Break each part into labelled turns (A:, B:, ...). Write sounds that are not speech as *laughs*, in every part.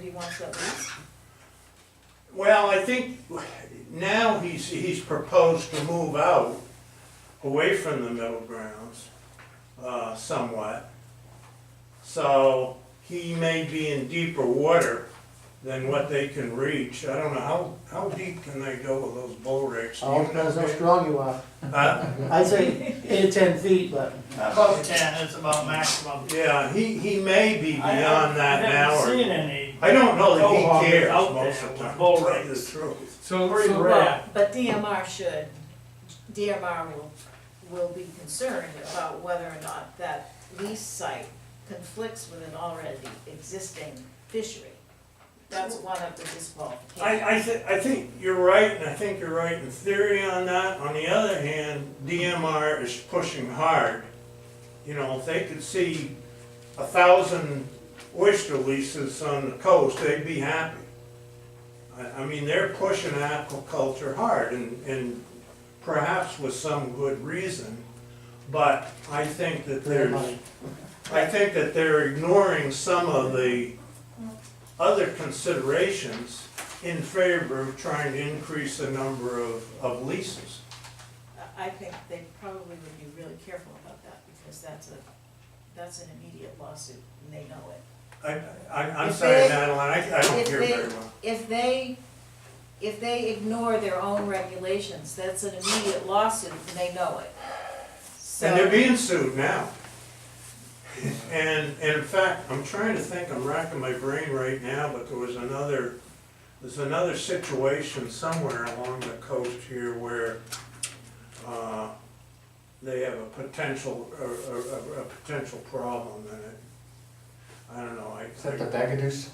A: he wants to lease?
B: Well, I think now he's, he's proposed to move out away from the middle grounds, uh, somewhat. So he may be in deeper water than what they can reach. I don't know, how, how deep can they go with those bull rakes? Do you
C: All depends how
B: know? uh,
C: strong you are.
B: Huh?
C: I'd say eight, ten feet, but
D: Above ten is about maximum.
B: Yeah, he, he may be
D: I- I-
B: beyond that now,
D: I haven't seen
B: or,
D: any.
B: I don't know that
D: Mohawk
B: he cares
D: out
B: most
D: there
B: of the
D: with
B: time, to
D: bull
B: tell you
D: rakes.
B: the truth.
E: So,
D: Pretty
E: so-
D: rare.
A: Well, But DMR should, DMR will, will be concerned about whether or not that lease site conflicts with an already existing fishery. That's one of the disqualifications.
B: I, I, thi- I think you're right, and I think you're right in theory on that. On the other hand, DMR is pushing hard. You know, if they could see a thousand oyster leases on the coast, they'd be happy. I, I mean, they're pushing aquaculture hard, and, and perhaps with some good reason. But I think that
C: their
B: there's,
C: money.
B: I think that they're ignoring some of the other considerations in favor of trying to increase the number of, of leases.
A: I think they probably would be really careful about that, because that's a, that's an immediate lawsuit, and they know it.
B: I, I, I'm
A: If
B: sorry,
A: they-
B: Madeline, I, I don't
A: if
B: hear
A: they-
B: very well.
A: if they, if they ignore their own regulations, that's an immediate lawsuit, and they know it.
B: And they're
A: So,
B: being sued now. And, and in fact, I'm trying to think, I'm racking my brain right now, but there was another, there's another situation somewhere along the coast here where, uh, they have a potential, a, a, a- a potential problem in it. I don't know, I.
F: Is that the Bagaduce?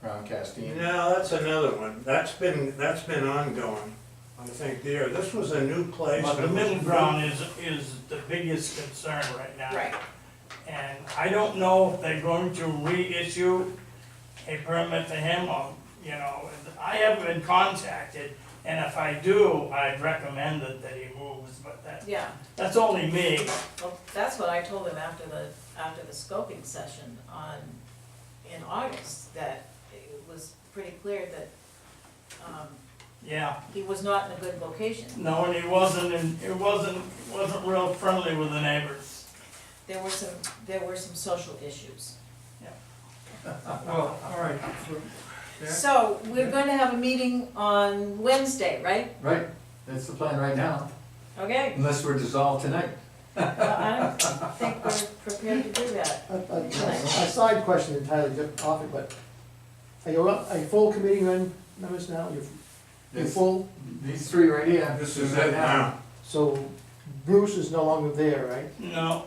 F: Round casting?
B: No, that's another one. That's been, that's been ongoing, I think there. This was a new place.
D: But the
B: and-
D: middle ground is, is the biggest concern right now.
A: right,
D: And I don't know if they're going to reissue a permit to him or, you know, I haven't been contacted. And if I do, I'd recommend that, that he moves, but that,
A: yeah,
D: that's only me.
A: well, that's what I told them after the, after the scoping session on, in August, that it was pretty clear that, um,
D: Yeah,
A: he was not in a good location.
D: no, and he wasn't, and it wasn't, wasn't real friendly with the neighbors.
A: There were some, there were some social issues.
E: well, all right, so- Yeah.
A: So, we're gonna have a meeting on Wednesday, right?
F: Right, that's the plan right now, *laughs*
A: Okay,
F: unless we're dissolved tonight.
A: well, I don't think we're prepared to do that.
C: A a- a side question entirely different topic, but are you, up- are you full committee men- members now? You're, you're
F: Yes.
C: full?
F: These three right here.
B: This is it now.
C: So Bruce is no longer there, right?
D: No,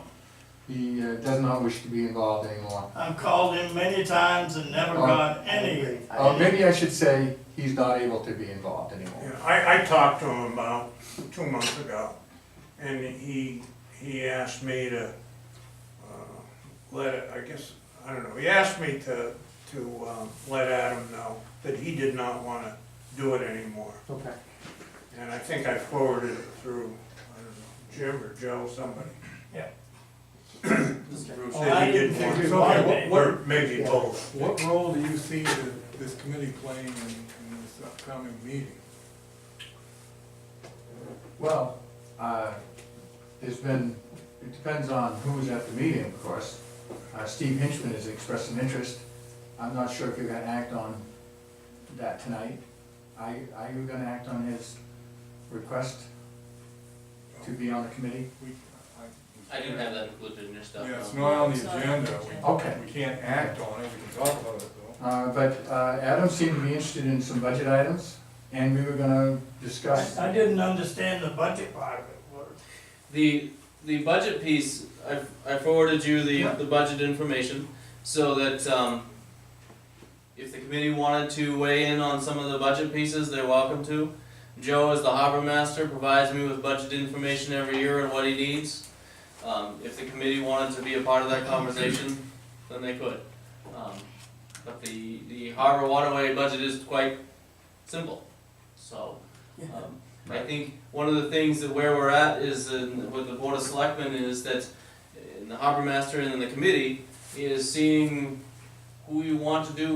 F: He uh, does not wish to be involved anymore.
D: I've called him many times and never
F: Oh.
D: got any.
F: Or maybe I should say, he's not able to be involved anymore.
B: Yeah, I, I talked to him about two months ago, and he, he asked me to, uh, let, it- I guess, I don't know, he asked me to, to, um, let Adam know that he did not wanna do it anymore.
C: Okay.
B: And I think I forwarded it through, I don't know, Jim or Joe, somebody.
D: Yeah.
B: Who
D: Oh, I
B: said he
D: didn't
B: didn't
D: think
B: want
D: we
B: it,
D: wanted
B: or
D: it.
B: or maybe
C: Yeah.
B: both.
E: what role do you see the- this committee playing in, in this upcoming meeting?
F: Well, uh, there's been, it depends on who's at the meeting, of course. Uh, Steve Hinchman has expressed an interest. I'm not sure if you're gonna act on that tonight. Are, you- are you gonna act on his request to be on the committee?
E: We-
G: I didn't have that included in your stuff.
E: Yeah, it's
G: no.
E: not on the
A: It's not on the
E: agenda, we,
F: Okay.
E: we can't act on it, we can talk about it though.
F: Uh, but, uh, Adam seemed to be interested in some budget items, and we were gonna discuss.
D: I didn't understand the budget part of it. What-
G: The, the budget piece, I, I forwarded you the, the budget information so that, um, if the committee wanted to weigh in on some of the budget pieces, they're welcome to. Joe, as the harbor master, provides me with budget information every year and what he needs. Um, if the committee wanted to be a part of that conversation, then they could. Um, but the, the harbor waterway budget is quite simple, so, um, I think one of the things that where we're at is in, with the board of selectmen is that uh, the harbor master and the committee is seeing who we want to do